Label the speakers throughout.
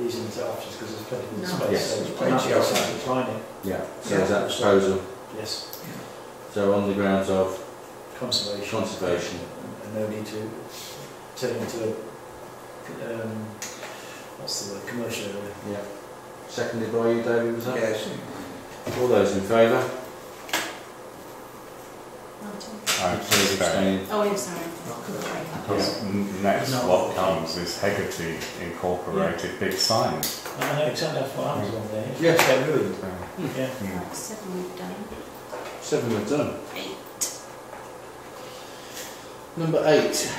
Speaker 1: using it up just because it's plenty of
Speaker 2: No.
Speaker 1: space.
Speaker 3: Yes,
Speaker 1: so
Speaker 3: there's
Speaker 1: it's
Speaker 3: plenty
Speaker 1: not
Speaker 3: of
Speaker 1: just
Speaker 3: space.
Speaker 1: Decline it,
Speaker 3: Yeah, so is that disposal?
Speaker 1: yes,
Speaker 3: So on the grounds of
Speaker 1: conservation.
Speaker 3: conservation,
Speaker 1: And no need to turn into a, um, what's the word, commercial area.
Speaker 3: yeah. Seconded by you, David, was that?
Speaker 4: Yes.
Speaker 3: All those in favour?
Speaker 5: I
Speaker 3: Opposed, abstaining?
Speaker 2: Oh, yeah, sorry.
Speaker 5: Because n- next
Speaker 1: No.
Speaker 5: what comes is Hegarty Incorporated big signs.
Speaker 1: I know exactly that's what happens on there.
Speaker 3: Yes.
Speaker 1: They're ruined,
Speaker 5: So,
Speaker 1: yeah.
Speaker 5: mm.
Speaker 2: Right, seven we've done.
Speaker 3: Seven were done.
Speaker 2: Eight.
Speaker 3: Number eight,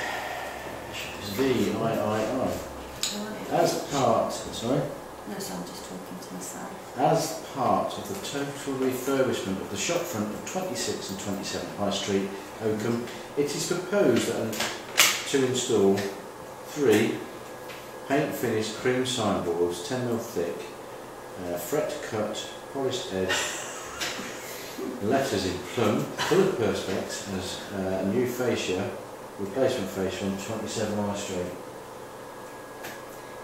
Speaker 3: V I I I. As part, sorry,
Speaker 2: No, so I'm just talking to myself.
Speaker 3: as part of the total refurbishment of the shopfront of 26 and 27 High Street, Oakham, it is proposed that, an- to install three paint finished cream signboards, 10 mil thick, uh, fret cut, polished edge, letters in plum, coloured perspex, as uh, a new fascia, replacement fascia on 27 High Street.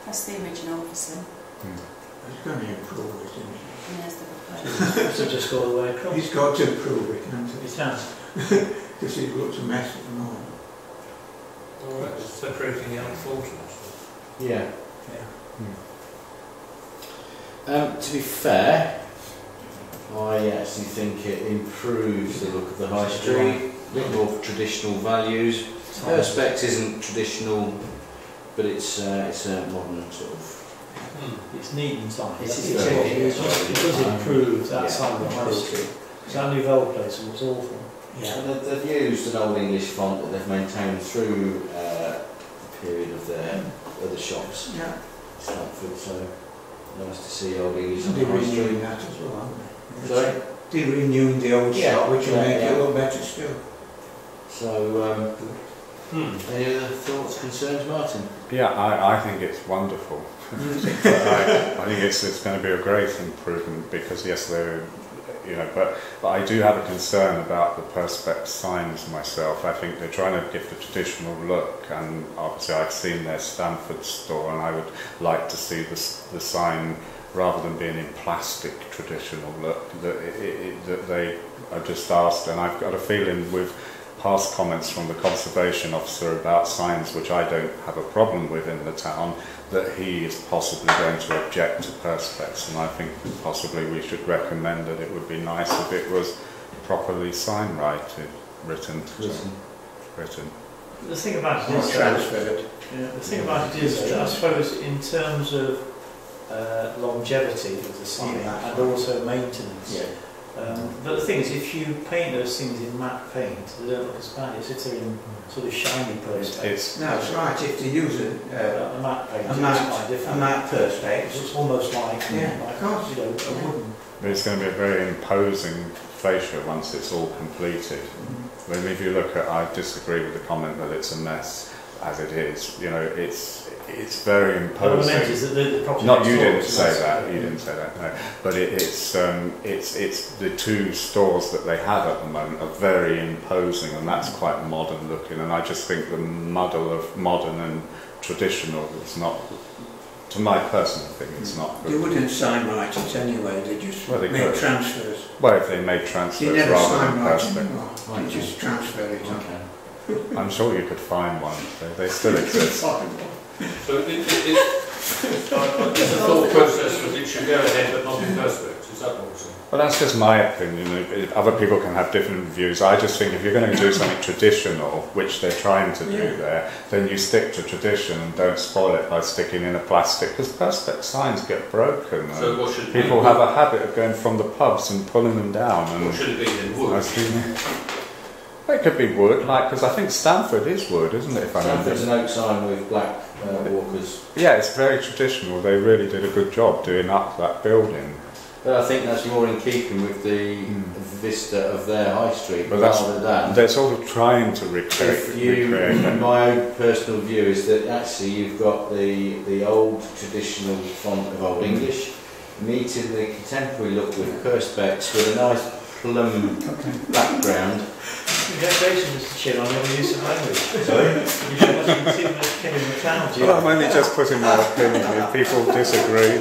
Speaker 2: That's the original, obviously.
Speaker 4: He's going to improve it, isn't
Speaker 2: And there's the proposal.
Speaker 1: So just go all the way across.
Speaker 4: he? He's got to improve it, hasn't
Speaker 1: It has.
Speaker 4: he? Because he looks a mess at the moment.
Speaker 6: All right, separating the unfortunate.
Speaker 3: Yeah.
Speaker 1: Yeah.
Speaker 3: Um, to be fair, I actually think it improves the look of the high street, a bit more traditional values. Perspex isn't traditional, but it's uh, it's a modern sort of.
Speaker 1: It's neat and tidy.
Speaker 3: It
Speaker 1: That's
Speaker 3: is
Speaker 1: the
Speaker 3: very
Speaker 1: thing. It
Speaker 3: neat.
Speaker 1: does- it does improve
Speaker 3: Yeah.
Speaker 1: that side of the high street. Because I knew Vole Place and it was awful.
Speaker 3: And they've- they've used an old English font that they've maintained through uh, the period of their other shops,
Speaker 4: Yeah.
Speaker 3: Stamford. So nice to see old English on
Speaker 4: They're
Speaker 3: the high street.
Speaker 4: renewing that as well, aren't they?
Speaker 3: Sorry.
Speaker 4: They're renewing the old
Speaker 3: Yeah,
Speaker 4: shop, which will
Speaker 3: yeah,
Speaker 4: make
Speaker 3: yeah.
Speaker 4: it look better still.
Speaker 3: So um,
Speaker 6: Hmm.
Speaker 3: any other thoughts, concerns, Martin?
Speaker 5: Yeah, I, I think it's wonderful. But I, I think it's, it's going to be a great improvement because yes, they're, you know, but, but I do have a concern about the perspex signs myself. I think they're trying to give the traditional look, and obviously I've seen their Stanford store, and I would like to see the s the sign rather than being in plastic traditional look that it, it, it, that they are just asked, and I've got a feeling with past comments from the conservation officer about signs, which I don't have a problem with in the town, that he is possibly going to object to perspex, and I think possibly we should recommend that it would be nice if it was properly sign writed, written,
Speaker 3: Listen.
Speaker 5: written.
Speaker 7: The thing about it
Speaker 4: Not
Speaker 7: is, that,
Speaker 4: transferred.
Speaker 7: yeah, the thing about it is, that I suppose in terms of
Speaker 1: Uh, longevity of the site
Speaker 4: Yeah, Oh, that's
Speaker 1: and
Speaker 4: right.
Speaker 1: also maintenance.
Speaker 3: Yeah.
Speaker 1: Um, but the thing is, if you paint those things in matte paint, they don't look as bad. It's if they're in sort of shiny
Speaker 5: It's,
Speaker 1: perspex.
Speaker 5: it's
Speaker 4: No, Mm-hmm. it's right, if they use a, uh,
Speaker 1: A matte paint,
Speaker 4: a
Speaker 1: it's quite
Speaker 4: matte, a
Speaker 1: different.
Speaker 4: matte perspex,
Speaker 1: It's almost like,
Speaker 4: Yeah, of course.
Speaker 1: like you know, a wooden.
Speaker 5: it's going to be a very imposing fascia once it's all completed. I mean, if you look at, I disagree with the comment that it's a mess as it is. You know, it's it's very
Speaker 1: What I meant
Speaker 5: imposing.
Speaker 1: is that the, the property
Speaker 5: Not you
Speaker 1: next door
Speaker 5: didn't
Speaker 1: is
Speaker 5: say
Speaker 1: nice.
Speaker 5: that. You didn't say that. No, but it, it's um, it's it's the two stores that they have at the moment are very imposing, and that's quite modern looking. And I just think the muddle of modern and traditional is not, to my personal thing, it's not
Speaker 4: they
Speaker 5: good.
Speaker 4: wouldn't sign write it anyway, they just
Speaker 5: Well, they
Speaker 4: make
Speaker 5: could.
Speaker 4: transfers.
Speaker 5: Well, if they made
Speaker 4: They
Speaker 5: transfers
Speaker 4: never
Speaker 5: rather
Speaker 4: sign
Speaker 5: than
Speaker 4: write
Speaker 5: perspex,
Speaker 4: anymore,
Speaker 3: Right.
Speaker 4: they just transfer it on.
Speaker 3: Okay.
Speaker 5: I'm sure you could find one. They, they still exist.
Speaker 6: So it, it, it, I- I- it's a thought process that it should go ahead, but not in perspex. Is that what you're saying?
Speaker 5: Well, that's just my opinion. If- Other people can have different views. I just think if you're going to do something traditional, which they're trying to do there, then you stick to tradition and don't spoil it by sticking in a plastic. Because perspex signs get broken. and
Speaker 6: So what should it be?
Speaker 5: people have a habit of going from the pubs and pulling them down.
Speaker 6: What
Speaker 5: And
Speaker 6: should it be then?
Speaker 5: I
Speaker 6: Wood.
Speaker 5: see- it could be wood, like because I think Stanford is wood, isn't it? If I remember.
Speaker 3: Stanford's an oak sign with black uh, walkers,
Speaker 5: Yeah, it's very traditional. They really did a good job doing up that building.
Speaker 3: but I think that's more in keeping with the
Speaker 5: Hmm.
Speaker 3: vista of their high street
Speaker 5: But that's-
Speaker 3: rather than.
Speaker 5: They're sort of trying to recreate.
Speaker 3: if you,
Speaker 5: recreate it.
Speaker 3: my own personal view is that actually you've got the the old traditional font of Old English meeting the contemporary look with perspex with a nice plum background,
Speaker 1: Congratulations, Mr Chair, on your use of language.
Speaker 8: Sorry?
Speaker 1: You should have seen the King of the Town, do you?
Speaker 5: Well, I'm only just putting my opinion. If people disagree,